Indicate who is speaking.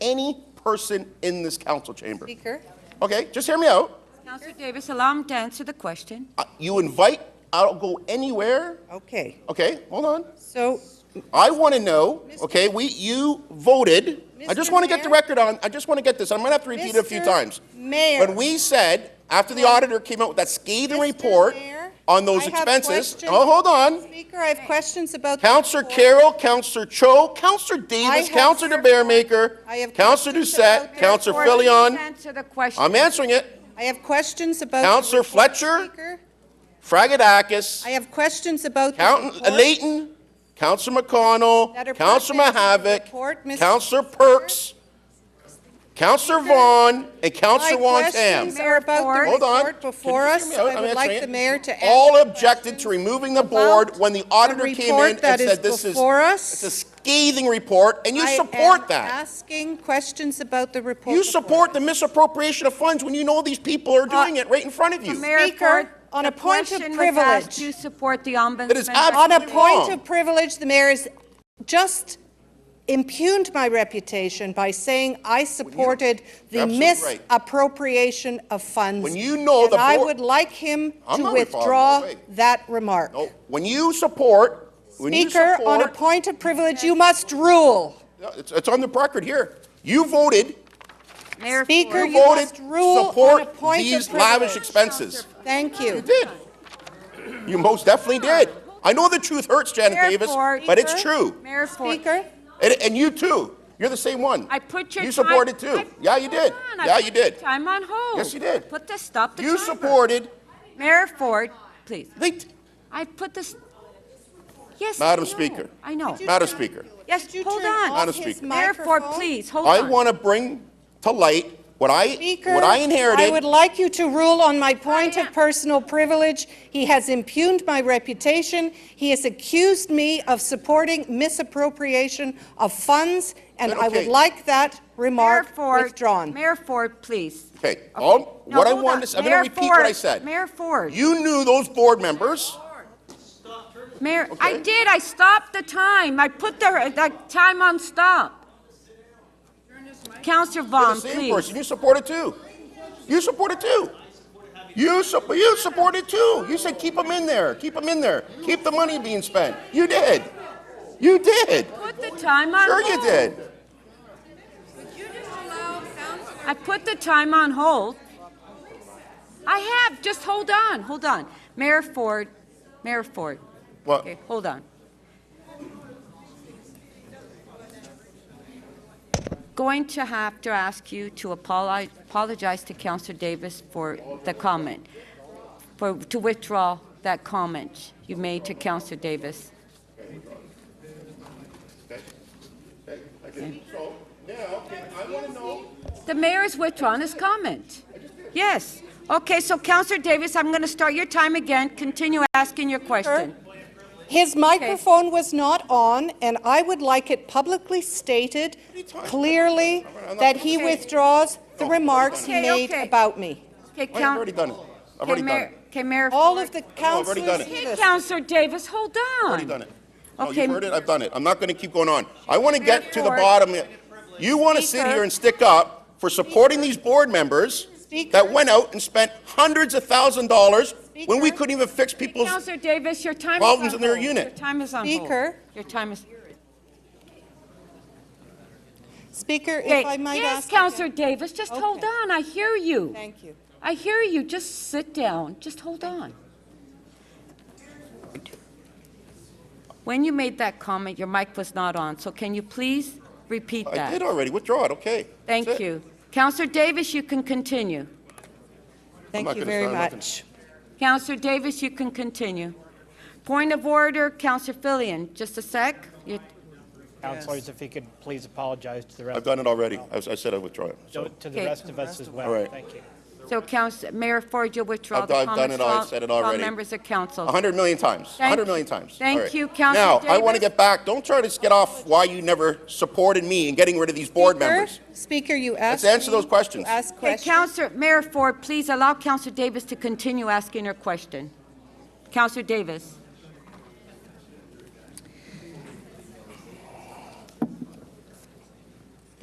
Speaker 1: any person in this council chamber.
Speaker 2: Speaker.
Speaker 1: Okay, just hear me out.
Speaker 2: Councillor Davis, allow him to answer the question.
Speaker 1: Uh, You invite, I'll go anywhere.
Speaker 3: Okay,
Speaker 1: Okay, hold on.
Speaker 3: so,
Speaker 1: I want to know, okay, we, you voted. I just
Speaker 3: Mr.
Speaker 1: want to get the
Speaker 3: Mayor?
Speaker 1: record on, I just want to get this. I'm going to have to repeat it a few
Speaker 3: Mr.
Speaker 1: times.
Speaker 3: Mayor.
Speaker 1: When we said, after the auditor came out with that scathing
Speaker 3: Mr.
Speaker 1: report
Speaker 3: Mayor,
Speaker 1: on those
Speaker 3: I have
Speaker 1: expenses.
Speaker 3: questions.
Speaker 1: Oh, hold on.
Speaker 3: Speaker, I have questions about. the
Speaker 1: Counselor
Speaker 3: report.
Speaker 1: Carroll, Counselor Cho, Counselor Davis,
Speaker 3: have-
Speaker 1: Counselor DeBaremaker,
Speaker 3: I have
Speaker 1: Counselor
Speaker 3: questions
Speaker 1: Doucette,
Speaker 3: about the
Speaker 1: Counselor
Speaker 3: report.
Speaker 1: Filion.
Speaker 2: Please Answer the question.
Speaker 1: I'm answering it.
Speaker 3: I have questions about. the
Speaker 1: Counselor
Speaker 3: report,
Speaker 1: Fletcher?
Speaker 3: Speaker.
Speaker 1: Fragadakis,
Speaker 3: I have questions about. the
Speaker 1: Count-
Speaker 3: report.
Speaker 1: Layton, Counselor
Speaker 3: That
Speaker 1: McConnell,
Speaker 3: are
Speaker 1: Counselor
Speaker 3: pertinent to the report,
Speaker 1: Mahavik,
Speaker 3: Mr.
Speaker 1: Counselor
Speaker 3: Speaker.
Speaker 1: Perks, Counselor Vaughn, and
Speaker 3: My
Speaker 1: Counselor
Speaker 3: questions
Speaker 1: Wontam.
Speaker 3: are about the
Speaker 1: Hold on.
Speaker 3: report before
Speaker 1: Can you
Speaker 3: us,
Speaker 1: hear me
Speaker 3: so
Speaker 1: out?
Speaker 3: I
Speaker 1: I'm
Speaker 3: would
Speaker 1: answering
Speaker 3: like the
Speaker 1: it.
Speaker 3: mayor to answer.
Speaker 1: All
Speaker 3: the
Speaker 1: objected
Speaker 3: questions
Speaker 1: to removing the
Speaker 3: about
Speaker 1: board when the auditor came
Speaker 3: report
Speaker 1: in and
Speaker 3: that is
Speaker 1: said this is,
Speaker 3: before us.
Speaker 1: it's a scathing report, and you
Speaker 3: I am
Speaker 1: support that.
Speaker 3: asking questions about the report.
Speaker 1: You
Speaker 3: before
Speaker 1: support
Speaker 3: us.
Speaker 1: the misappropriation of funds when you know these people are
Speaker 3: Uh,
Speaker 1: doing it right in front of
Speaker 2: The
Speaker 1: you.
Speaker 2: mayor
Speaker 3: Speaker,
Speaker 2: for-
Speaker 3: on
Speaker 2: the
Speaker 3: a point of
Speaker 2: question was asked,
Speaker 3: privilege.
Speaker 2: Do you support the ombudsman?
Speaker 1: That is
Speaker 3: On a
Speaker 1: absolutely
Speaker 3: point
Speaker 1: wrong.
Speaker 3: of privilege, the mayor has just impugned my reputation by saying I supported the
Speaker 1: you're absolutely right.
Speaker 3: misappropriation of funds.
Speaker 1: When you know the
Speaker 3: And I
Speaker 1: board-
Speaker 3: would like him
Speaker 1: I'm
Speaker 3: to
Speaker 1: not involved, no
Speaker 3: withdraw
Speaker 1: way.
Speaker 3: that remark.
Speaker 1: No, When you support, when you
Speaker 3: Speaker,
Speaker 1: support.
Speaker 3: on a point of privilege, you must rule.
Speaker 1: No, It's, it's on the record here. You voted,
Speaker 2: Mayor
Speaker 3: Speaker,
Speaker 2: Ford.
Speaker 1: you
Speaker 3: You
Speaker 1: voted
Speaker 3: must rule on
Speaker 1: to
Speaker 3: a
Speaker 1: support
Speaker 3: point of
Speaker 1: these
Speaker 3: privilege.
Speaker 1: lavish expenses.
Speaker 3: Thank
Speaker 1: You
Speaker 3: you.
Speaker 1: did. You most definitely did. I know the truth hurts, Janet
Speaker 2: Mayor
Speaker 1: Davis,
Speaker 2: Ford.
Speaker 1: but it's true.
Speaker 2: Mayor Ford.
Speaker 3: Speaker,
Speaker 1: And, and you too. You're the same one.
Speaker 2: I put your
Speaker 1: You
Speaker 2: time-
Speaker 1: supported too.
Speaker 2: I-
Speaker 1: Yeah, you did.
Speaker 2: Hold on, I
Speaker 1: Yeah,
Speaker 2: put
Speaker 1: you
Speaker 2: your
Speaker 1: did.
Speaker 2: Time on hold.
Speaker 1: Yes, you did.
Speaker 2: Put the, stop the
Speaker 1: You
Speaker 2: timer.
Speaker 1: supported,
Speaker 2: Mayor Ford, please.
Speaker 1: they,
Speaker 2: I put this, yes. I
Speaker 1: Madam
Speaker 2: know.
Speaker 1: Speaker.
Speaker 2: I know.
Speaker 1: Madam Speaker.
Speaker 2: Yes,
Speaker 3: Could you
Speaker 2: hold
Speaker 3: turn
Speaker 2: on.
Speaker 3: off
Speaker 1: Madam
Speaker 3: his
Speaker 1: Speaker.
Speaker 2: Mayor Ford,
Speaker 3: microphone?
Speaker 2: please, hold on.
Speaker 1: I want to bring to light what I,
Speaker 3: Speaker,
Speaker 1: what I inherited.
Speaker 3: I would like you to rule on my point
Speaker 2: am-
Speaker 3: of personal privilege. He has impugned my reputation. He has accused me of supporting misappropriation of funds, and
Speaker 1: Then
Speaker 3: I
Speaker 1: okay.
Speaker 3: would like that
Speaker 2: Mayor
Speaker 3: remark
Speaker 2: Ford-
Speaker 3: withdrawn.
Speaker 2: Mayor Ford, please.
Speaker 1: Okay, all,
Speaker 2: No,
Speaker 1: what I
Speaker 2: hold on.
Speaker 1: wanted, to s- I'm going
Speaker 2: Mayor
Speaker 1: to repeat what I
Speaker 2: Ford,
Speaker 1: said.
Speaker 2: Mayor Ford.
Speaker 1: You knew those board members.
Speaker 2: Mayor, I
Speaker 1: Okay.
Speaker 2: did, I stopped the time. I put the, the time on stop. Counselor
Speaker 1: You're
Speaker 2: Vaughn,
Speaker 1: the same
Speaker 2: please.
Speaker 1: person. You support it too. You support it too. You support. You support it too. You said keep them in there. Keep them in there. Keep the money being spent. You did. You did.
Speaker 2: Put the time on
Speaker 1: Sure
Speaker 2: hold.
Speaker 1: you did.
Speaker 2: I put the time on hold. I have, just hold on, hold on. Mayor Ford, Mayor Ford,
Speaker 1: Well,
Speaker 2: okay, hold on. Going to have to ask you to apologize, apologize to Counselor Davis for the comment, for, to withdraw that comment you made to Counselor Davis.
Speaker 1: So now, okay, I want to know.
Speaker 2: The mayor has withdrawn his comment. Yes. Okay, so Counselor Davis, I'm going to start your time again. Continue asking your question.
Speaker 3: His microphone was not on, and I would like it publicly stated clearly that he withdraws the remarks he
Speaker 2: Okay,
Speaker 3: made
Speaker 2: okay.
Speaker 3: about me.
Speaker 2: Okay,
Speaker 1: Wait, I've already
Speaker 2: Coun-
Speaker 1: done it. I've
Speaker 2: okay,
Speaker 1: already done it.
Speaker 2: Mayor, okay, Mayor.
Speaker 3: All
Speaker 2: Ford.
Speaker 3: of the
Speaker 1: No, I've already
Speaker 3: councilors.
Speaker 1: done it.
Speaker 2: Okay, Counselor Davis, hold on.
Speaker 1: I've already done it. No,
Speaker 2: Okay.
Speaker 1: you've heard it. I've done it. I'm not going to keep going on. I want to get to the
Speaker 2: Therefore-
Speaker 1: bottom. You want to sit
Speaker 2: Speaker.
Speaker 1: here and stick up for supporting these board members
Speaker 3: Speaker.
Speaker 1: that went out and spent hundreds of thousand dollars when we
Speaker 3: Speaker.
Speaker 1: couldn't even fix people's.
Speaker 2: Counselor Davis, your time is on hold.
Speaker 1: Problems in their unit.
Speaker 2: Your time is on hold.
Speaker 3: Speaker.
Speaker 2: Your time is.
Speaker 3: Speaker,
Speaker 2: Okay,
Speaker 3: if I might
Speaker 2: Yes,
Speaker 3: ask.
Speaker 2: Counselor Davis, just hold
Speaker 3: Okay.
Speaker 2: on. I hear you.
Speaker 3: Thank you.
Speaker 2: I hear you. Just sit down. Just hold on. When you made that comment, your mic was not on, so can you please repeat
Speaker 1: I did
Speaker 2: that?
Speaker 1: already. Withdraw it. Okay. That's
Speaker 2: Thank
Speaker 1: it.
Speaker 2: you. Counselor Davis, you can continue.
Speaker 3: Thank
Speaker 1: not
Speaker 3: you
Speaker 1: gonna
Speaker 3: very
Speaker 1: sign nothing.
Speaker 3: much.
Speaker 2: Counselor Davis, you can continue. Point of order, Counselor Fillion, just a sec. You-
Speaker 4: Counselors, if he could please apologize to the rest,
Speaker 1: I've done it already. I, was- I said I withdraw it. So
Speaker 4: to the
Speaker 2: Okay.
Speaker 4: rest of us as
Speaker 1: All
Speaker 4: well.
Speaker 1: right.
Speaker 4: Thank you.
Speaker 2: So Counsel, Mayor Ford, you'll withdraw
Speaker 1: I've
Speaker 2: the
Speaker 1: done- I've done
Speaker 2: comments
Speaker 1: it all. I've
Speaker 2: while-
Speaker 1: said it
Speaker 2: while
Speaker 1: already.
Speaker 2: members of council.
Speaker 1: a hundred million times. A
Speaker 2: Thank
Speaker 1: hundred
Speaker 2: you.
Speaker 1: million times.
Speaker 2: Thank
Speaker 1: All right.
Speaker 2: you, Counselor
Speaker 1: Now I want to
Speaker 2: Davis.
Speaker 1: get back. Don't try to get off why you never supported me in getting rid of these board
Speaker 3: Speaker-
Speaker 1: members.
Speaker 3: Speaker, you asked.
Speaker 1: answer
Speaker 3: me
Speaker 1: those questions.
Speaker 3: to Ask
Speaker 2: Okay,
Speaker 3: questions.
Speaker 2: Counselor, Mayor Ford, please allow Counselor Davis to continue asking her question. Counselor Davis,